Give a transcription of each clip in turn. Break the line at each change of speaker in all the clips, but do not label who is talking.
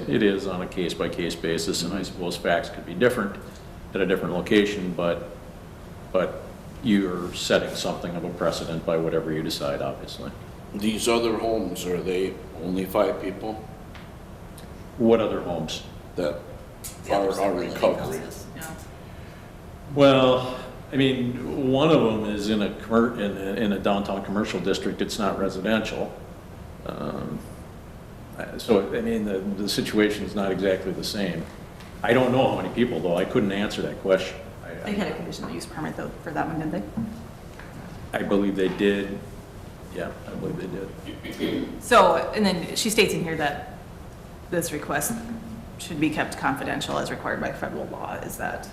It is on a case-by-case basis, and I suppose facts could be different at a different location, but, but you're setting something of a precedent by whatever you decide, obviously.
These other homes, are they only five people
What other homes?
that
The
are
others
are
are really
recovering?
houses, yeah.
Well, I mean, one of them is in a commer, in a, in a downtown commercial district, it's not residential. Um, uh, So, I mean, the, the situation's not exactly the same. I don't know how many people, though, I couldn't answer that question. I-
They had a conditional use permit though for that one, didn't they?
I believe they did, yeah, I believe they did.
So, and then she states in here that this request should be kept confidential as required by federal law, is that?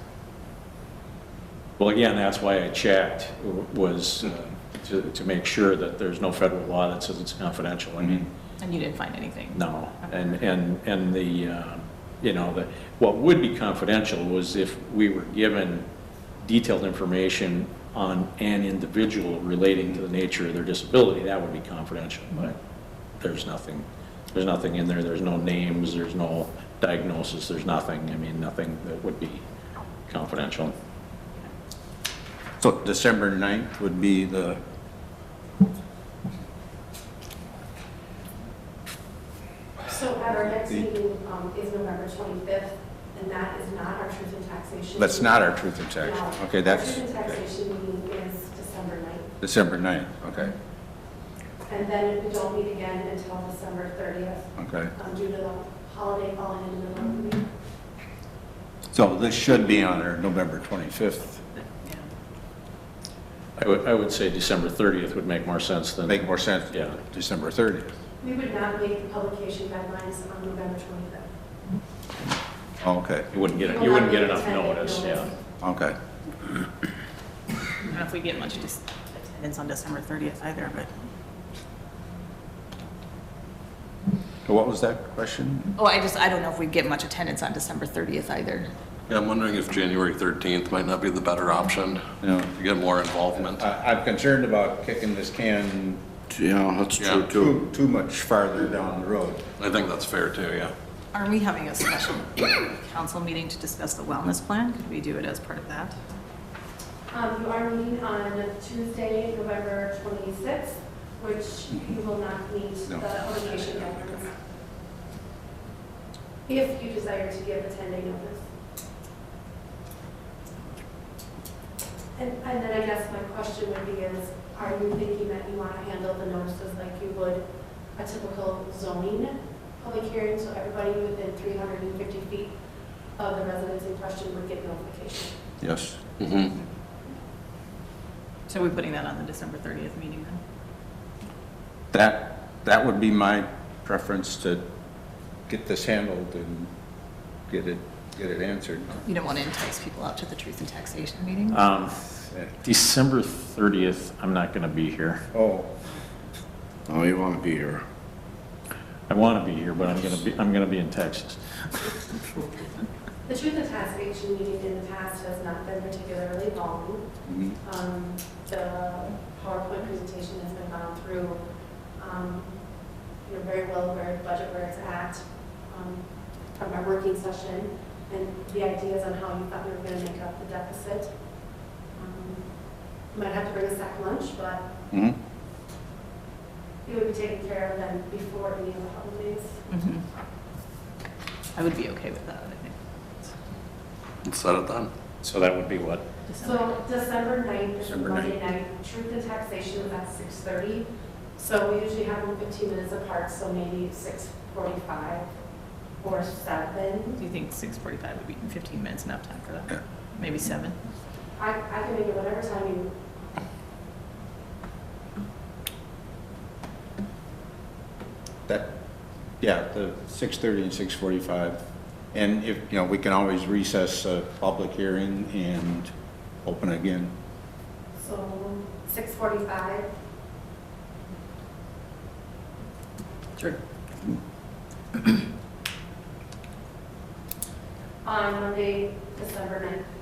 Well, again, that's why I checked, w- was uh, to, to make sure that there's no federal law that says it's confidential. I mean,
And you didn't find anything?
no. And, and, and the, uh, you know, the, what would be confidential was if we were given detailed information on an individual relating to the nature of their disability, that would be confidential, but there's nothing, there's nothing in there, there's no names, there's no diagnosis, there's nothing, I mean, nothing that would be confidential.
So December 9th would be the,
So our next meeting um, is November 25th, and that is not our truth and taxation.
that's not our truth and taxation.
No.
Okay, that's
Our truth and
okay.
taxation meeting is December 9th,
December 9th, okay,
and then we don't meet again until December 30th
okay.
um, due to the holiday falling in the middle of the week.
So this should be on our November 25th.
Yeah.
I would, I would say December 30th would make more sense than,
Make more sense,
Yeah.
December 30th.
We would not make the publication deadlines on November 25th.
Okay,
you wouldn't get,
We
it-
will
you wouldn't
not
get
make
enough
attendant
notice, yeah.
okay.
I don't know if we get much dis- attendance on December 30th either, but,
So what was that question?
oh, I just, I don't know if we get much attendance on December 30th either.
Yeah, I'm wondering if January 13th might not be the better option
No.
to get more involvement.
I- I'm concerned about kicking this can
Yeah, that's true
Yeah.
too.
too, too much farther down the road.
I think that's fair too, yeah.
Aren't we having a special council meeting to discuss the wellness plan? Could we do it as part of that?
Um, You are meeting on Tuesday, November 26th, which you will not meet the
No.
publication deadlines. If you desire to give a 10-day notice. And and then I guess my question would be is, are you thinking that you want to handle the notices like you would a typical zoning public hearing? So everybody within 350 feet of the residence in question would get notification?
Yes.
Mm-hmm.
Mhm.
So we're putting that on the December 30th meeting then?
That, that would be my preference to get this handled and get it, get it answered.
You don't want to entice people out to the truth and taxation meeting?
Um,
Yeah.
December 30th, I'm not going to be here.
Oh,
Oh, you want to be here.
I want to be here, but I'm going to be, I'm going to be in Texas.
The truth and taxation meeting in the past has not been particularly long.
mhm.
Um, The PowerPoint presentation has been gone through. Um, You're very well aware of budget where it's at um, from our working session and the ideas on how you thought we were going to make up the deficit. Um, Might have to bring a sack lunch, but
Mhm.
it would be taken care of then before any of the holidays.
Mhm. I would be okay with that, I think.
Let's set it then.
So that would be what?
December.
So December 9th is
December
Monday night. Truth and taxation is at 6:30. So we usually have them 15 minutes apart, so maybe 6:45 or 7.
Do you think 6:45 would be 15 minutes enough time for
Yeah.
that? Maybe 7?
I, I can make it whatever time you,
That, yeah, the 6:30 and 6:45. And if, you know, we can always recess a public hearing and open again.
so 6:45.
Sure.
on Monday, December 9th.